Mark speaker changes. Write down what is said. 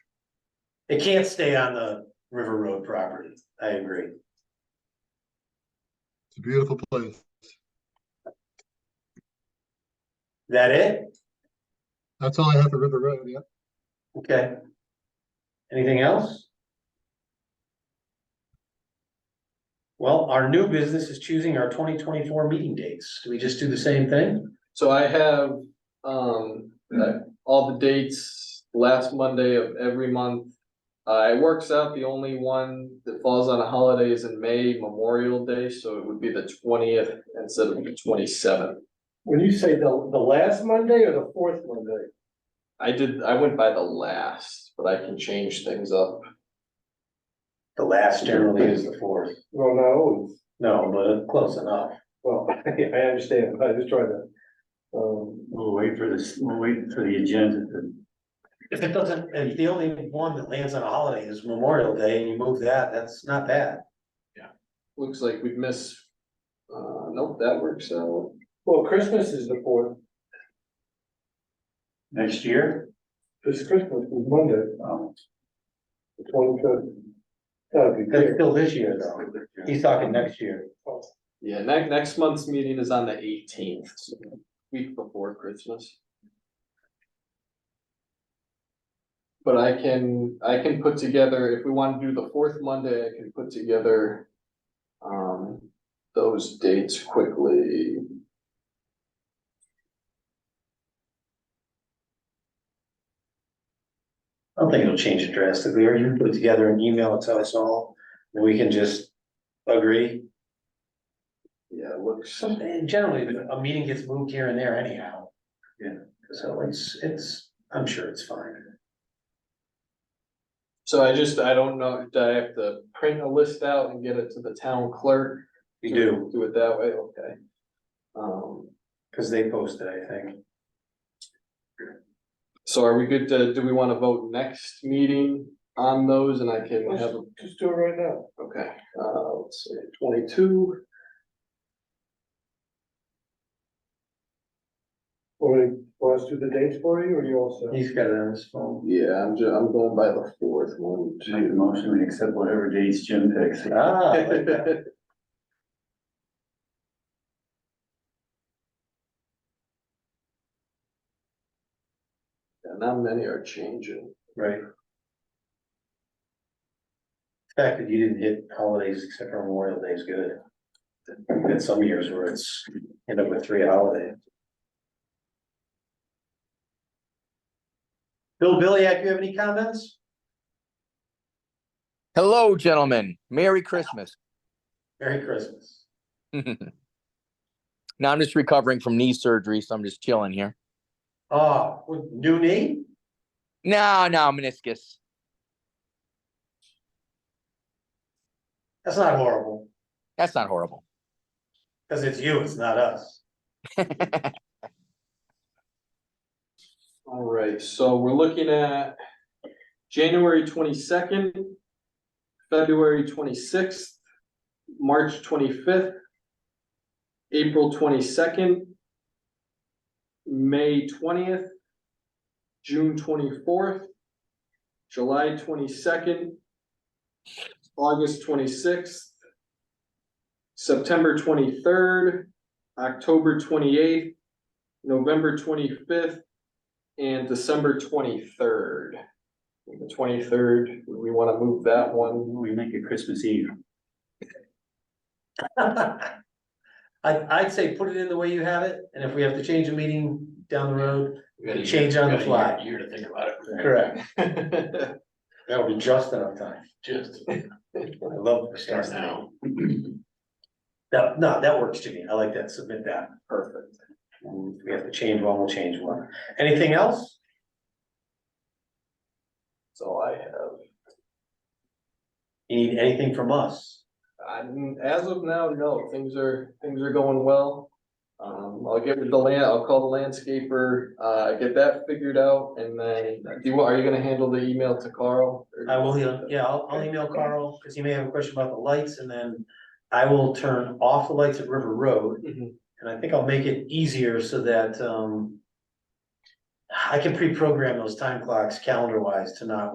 Speaker 1: It can't stay on the River Road property, I agree.
Speaker 2: It's a beautiful place.
Speaker 1: That it?
Speaker 2: That's all I have for River Road, yeah.
Speaker 1: Okay. Anything else? Well, our new business is choosing our twenty twenty-four meeting dates. Do we just do the same thing?
Speaker 3: So I have, um, uh, all the dates last Monday of every month. Uh, it works out, the only one that falls on a holiday is in May, Memorial Day, so it would be the twentieth instead of the twenty-seventh.
Speaker 4: When you say the, the last Monday or the fourth Monday?
Speaker 3: I did, I went by the last, but I can change things up.
Speaker 1: The last generally is the fourth.
Speaker 4: Well, no, it's,
Speaker 1: No, but close enough.
Speaker 4: well, I understand, I was trying to, um,
Speaker 5: We'll wait for this, we'll wait for the agenda to,
Speaker 1: If it doesn't, if the only one that lands on a holiday is Memorial Day and you move that, that's not bad.
Speaker 3: Looks like we'd miss, uh, nope, that works out.
Speaker 4: well, Christmas is the fourth,
Speaker 5: next year.
Speaker 4: this Christmas is Monday,
Speaker 5: Um,
Speaker 4: the twenty-fifth. That'd be
Speaker 1: That's
Speaker 4: great.
Speaker 1: still this year though. He's talking next year.
Speaker 3: Yeah, next, next month's meeting is on the eighteenth, week before Christmas. But I can, I can put together, if we wanna do the fourth Monday, I can put together. Um, those dates quickly.
Speaker 1: I don't think it'll change it drastically, or you can put it together an email and tell us all, and we can just agree.
Speaker 3: Yeah, it looks,
Speaker 1: Some- and generally, a meeting gets moved here and there anyhow.
Speaker 5: Yeah.
Speaker 1: So it's, it's, I'm sure it's fine.
Speaker 3: so I just, I don't know, do I have to print a list out and get it to the town clerk?
Speaker 1: You do,
Speaker 3: Do it that way, okay. Um.
Speaker 1: because they posted, I think.
Speaker 3: So are we good to, do we wanna vote next meeting on those and I can have, a-
Speaker 4: Just do it right now.
Speaker 3: okay, uh, let's see, twenty-two,
Speaker 4: Or we- want us to do the dates for you, or you all set?
Speaker 1: He's got it on his phone.
Speaker 3: yeah, I'm ju- I'm going by the fourth one.
Speaker 5: Just make a motion, we accept whatever dates Jim picks.
Speaker 1: Ah, I like that.
Speaker 3: too. And not many are changing,
Speaker 1: right. The Fact that you didn't hit holidays except for Memorial Day is good. Been some years where it's, end up with three holidays. Bill Billyak, you have any comments?
Speaker 6: Hello, gentlemen. Merry Christmas.
Speaker 1: Merry Christmas.
Speaker 6: now I'm just recovering from knee surgery, so I'm just chilling here.
Speaker 1: Oh, new knee?
Speaker 6: No, no, meniscus.
Speaker 1: That's not horrible,
Speaker 6: That's not horrible.
Speaker 1: because it's you, it's not us.
Speaker 3: alright, so we're looking at January twenty-second, February twenty-sixth, March twenty-fifth, April twenty-second, May twentieth, June twenty-fourth, July twenty-second, August twenty-sixth, September twenty-third, October twenty-eighth, November twenty-fifth, and December twenty-third. The twenty-third, we wanna move that one
Speaker 5: We make it Christmas Eve.
Speaker 1: I, I'd say put it in the way you have it, and if we have to change a meeting down the road,
Speaker 3: Gotta
Speaker 1: change on the fly.
Speaker 3: year to think about
Speaker 1: Correct.
Speaker 3: it.
Speaker 1: That'll be just enough time.
Speaker 3: Just.
Speaker 1: I love the start now. That, no, that works to me. I like that. Submit that.
Speaker 3: Perfect.
Speaker 1: And If we have to change one, we'll change one. Anything else?
Speaker 3: That's all I have.
Speaker 1: You need anything from us?
Speaker 3: I, mean, as of now, no, things are, things are going well. Um, I'll get with the land, I'll call the landscaper, uh, get that figured out and then, do you, are you gonna handle the email to Carl? or-
Speaker 1: I will, yeah, yeah, I'll, I'll email Carl, because he may have a question about the lights, and then I will turn off the lights at River Road.
Speaker 3: Mhm.
Speaker 1: And I think I'll make it easier so that, um. I can pre-program those time clocks calendar wise to not